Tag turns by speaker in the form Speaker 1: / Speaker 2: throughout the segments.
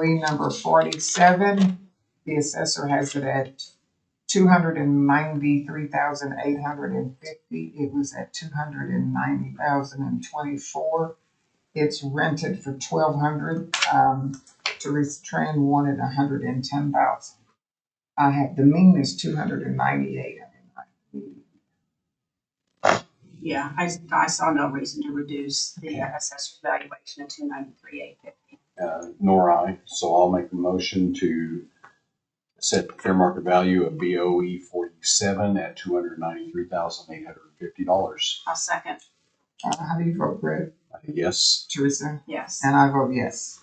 Speaker 1: lien number forty-seven. The assessor has it at two hundred and ninety-three thousand eight hundred and fifty. It was at two hundred and ninety thousand and twenty-four. It's rented for twelve hundred. Um, Teresa Tran wanted a hundred and ten thousand. I have, the mean is two hundred and ninety-eight.
Speaker 2: Yeah, I, I saw no reason to reduce the uh, assessor's valuation of two ninety-three, eight fifty.
Speaker 3: uh, nor I. So I'll make a motion to set the fair market value of BOE forty-seven at two hundred ninety-three thousand eight hundred fifty dollars.
Speaker 2: I'll second,
Speaker 1: Uh, how do you vote, Brett?
Speaker 3: Yes,
Speaker 1: Teresa?
Speaker 2: yes.
Speaker 1: And I vote yes.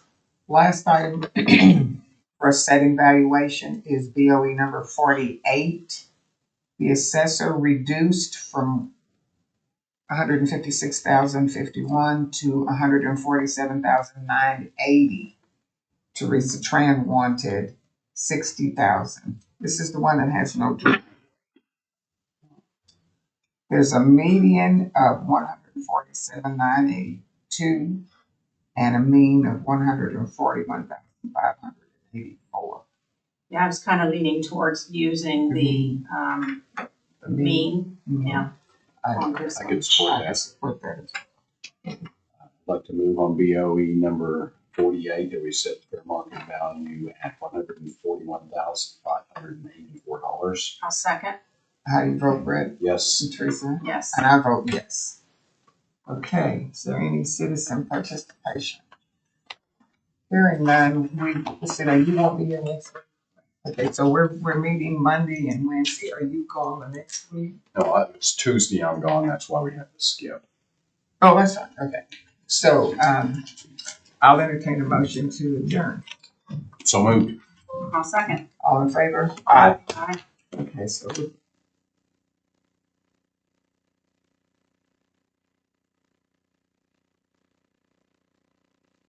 Speaker 1: Last item for setting valuation is BOE number forty-eight. The assessor reduced from one hundred and fifty-six thousand fifty-one to one hundred and forty-seven thousand nine eighty. Teresa Tran wanted sixty thousand. This is the one that has no. dri- There's a median of one hundred and forty-seven nine eighty-two and a mean of one hundred and forty-one thousand five hundred and eighty-four.
Speaker 2: Yeah, I was kind of leaning towards using the, um, mean, yeah. on this
Speaker 3: Mm-hmm. I
Speaker 2: one.
Speaker 3: could support
Speaker 1: I
Speaker 3: that.
Speaker 1: support that. as
Speaker 3: I'd like to move on BOE number forty-eight that we set the fair market value at one hundred and forty-one thousand five hundred and eighty-four dollars.
Speaker 2: I'll second,
Speaker 1: well. How do you vote, Brett
Speaker 3: Yes,
Speaker 1: and Teresa?
Speaker 2: yes.
Speaker 1: And I vote yes. Okay, is there any citizen participation? Hearing none, we, listen, are you won't be here next week? Okay, so we're, we're meeting Monday and Wednesday. Are you calling the next week?
Speaker 3: no, I- it's Tuesday I'm gone, that's why we have to skip.
Speaker 1: Oh, that's fine, okay. So, um, I'll entertain a motion to adjourn.
Speaker 3: So moved.
Speaker 2: I'll second.
Speaker 1: All in favor?
Speaker 3: Aye.
Speaker 2: Aye.
Speaker 1: Okay, so